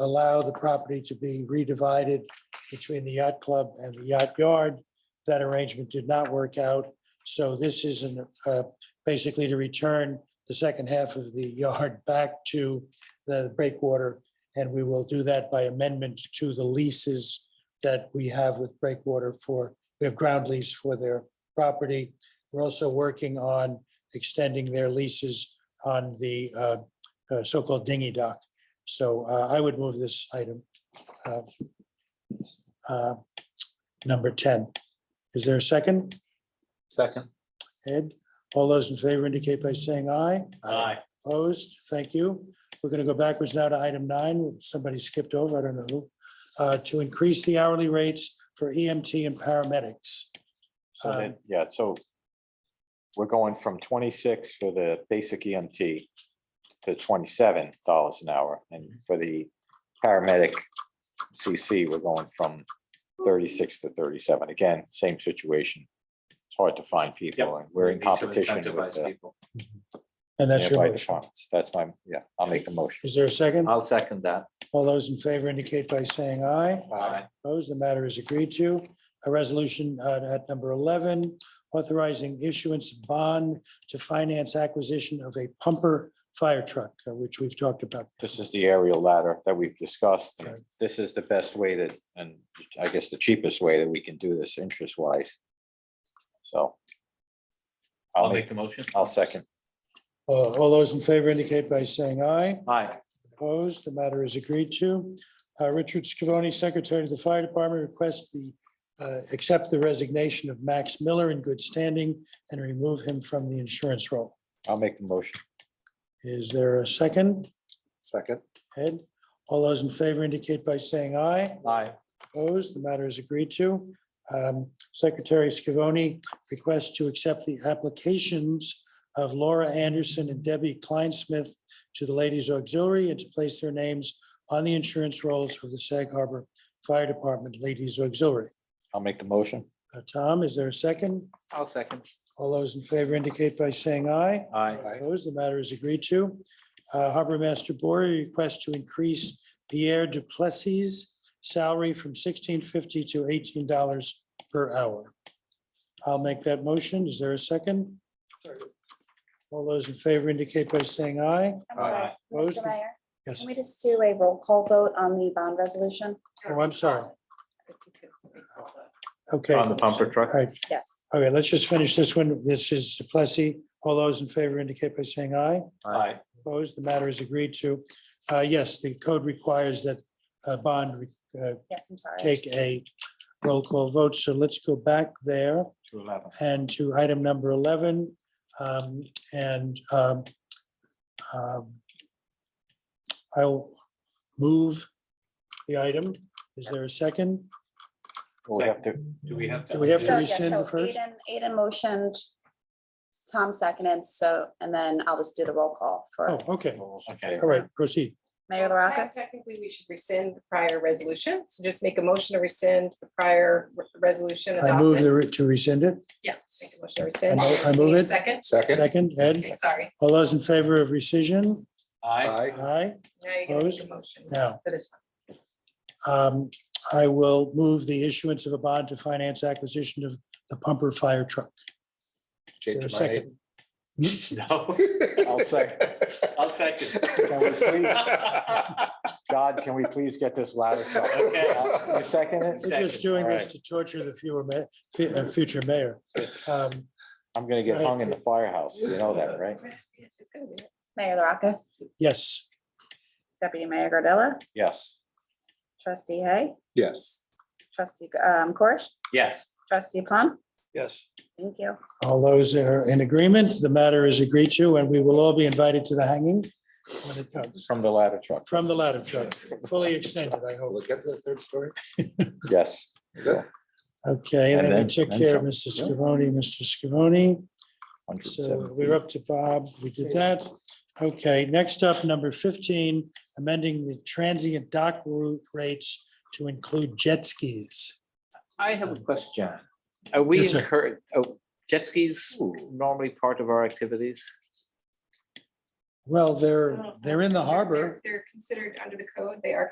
allow the property to be redivided between the yacht club and the yacht yard. That arrangement did not work out. So this is an, uh, basically to return the second half of the yard back to the breakwater. And we will do that by amendment to the leases that we have with breakwater for, we have ground lease for their property. We're also working on extending their leases on the uh, uh, so-called dinghy dock. So uh, I would move this item. uh, uh, Number 10. Is there a second? Second. Ed, all those in favor indicate by saying aye. Opposed? Thank you. We're going to go backwards now to item nine. Somebody skipped over, I don't know who. uh, To increase the hourly rates for EMT and paramedics. So then, Um, yeah, so we're going from twenty-six for the basic EMT to twenty-seven dollars an hour, and for the paramedic CC, we're going from thirty-six to thirty-seven. Again, same situation. It's hard to find people, and we're in need to competition with incentivize the people. And that's your nearby motion. departments. That's my, yeah, I'll make the motion. Is there a second? I'll second that. All those in favor indicate by saying aye. Aye. Opposed, the matter is agreed to. A resolution uh, at number 11, authorizing issuance of bond to finance acquisition of a pumper fire truck, uh, which we've talked about. This is the aerial ladder that we've discussed. and Right. This is the best way to, and I guess the cheapest way that we can do this interest wise. So. I'll make the motion. I'll second. Uh, All those in favor indicate by saying aye. Aye. Opposed, the matter is agreed to. Uh, Richard Scavone, Secretary of the Fire Department, requests the, uh, accept the resignation of Max Miller in good standing and remove him from the insurance roll. I'll make the motion. Is there a second? Second. Ed, all those in favor indicate by saying aye. Aye. Opposed, the matter is agreed to. Um, Secretary Scavone requests to accept the applications of Laura Anderson and Debbie Kleinsmith to the Ladies Auxiliary and to place their names on the insurance rolls for the Sag Harbor Fire Department Ladies Auxiliary. I'll make the motion. Uh, Tom, is there a second? I'll second. All those in favor indicate by saying aye. Aye. Opposed, the matter is agreed to. Uh, Harbor Master Board requests to increase Pierre Duplessis' salary from sixteen fifty to eighteen dollars per hour. I'll make that motion. Is there a second? All those in favor indicate by saying aye. I'm sorry, Aye. Opposed? Mr. Mayor, Yes. can we just do a roll call vote on the bond resolution? Oh, I'm sorry. Okay. On the pumper truck. All right, Yes. all right, let's just finish this one. This is Duplessis. All those in favor indicate by saying aye. Aye. Opposed, the matter is agreed to. Uh, Yes, the code requires that a bond uh, Yes, I'm sorry. take a roll call vote, so let's go back there To eleven. and to item number 11. um, And um, um, I'll move the item. Is there a second? Well, We have to, Do we have to? Do we have So, to yes, rescind so first? Aiden, Aiden motioned, Tom seconded, so, and then I'll just do the roll call Oh, for okay. Okay. All right, proceed. Mayor LaRocca. Technically, we should rescind the prior resolution, so just make a motion to rescind the prior re- resolution. I move adopted. the re- to rescind it. Yeah, make a motion to rescind. I mo- I move it. Second, Second? Second, Ed, Okay, sorry, all those in favor of rescission? Aye. Aye. Aye. now you can make the Opposed? motion. Now, For this um, I will move the issuance of a bond to finance acquisition of the pumper fire truck. Is there a Change my name. second? No, I'll second. I'll second. God, can we please get this ladder? truck? Okay. You second it? We're just Second. doing this Alright. to torture the fewer ma- fu- uh, future mayor. Um, I'm gonna get hung in the firehouse. You know that, right? one. Yeah, she's gonna do it. Mayor LaRocca, Yes, Deputy Mayor Gardella, Yes. Trustee Hay, Yes. Trustee um, Corish, Yes. Trustee Plum. Yes. Thank you. all those are in agreement. The matter is agreed to, and we will all be invited to the hanging when it comes From the ladder truck. from the ladder truck, fully extended, I hope. Look at the third story. Yes. Good. Okay, and And then we then- took then care of some. Mr. Scavone, Mr. Scavone. Hundred and So seven we're feet. up to Bob. We did that. Okay, next up, number 15, amending the transient dock route rates to include jet skis. I have a question. Are we Yes, sir. incurred, oh, jet skis normally part of our activities? Well, they're, they're in the They're- harbor. They're considered under the code, they are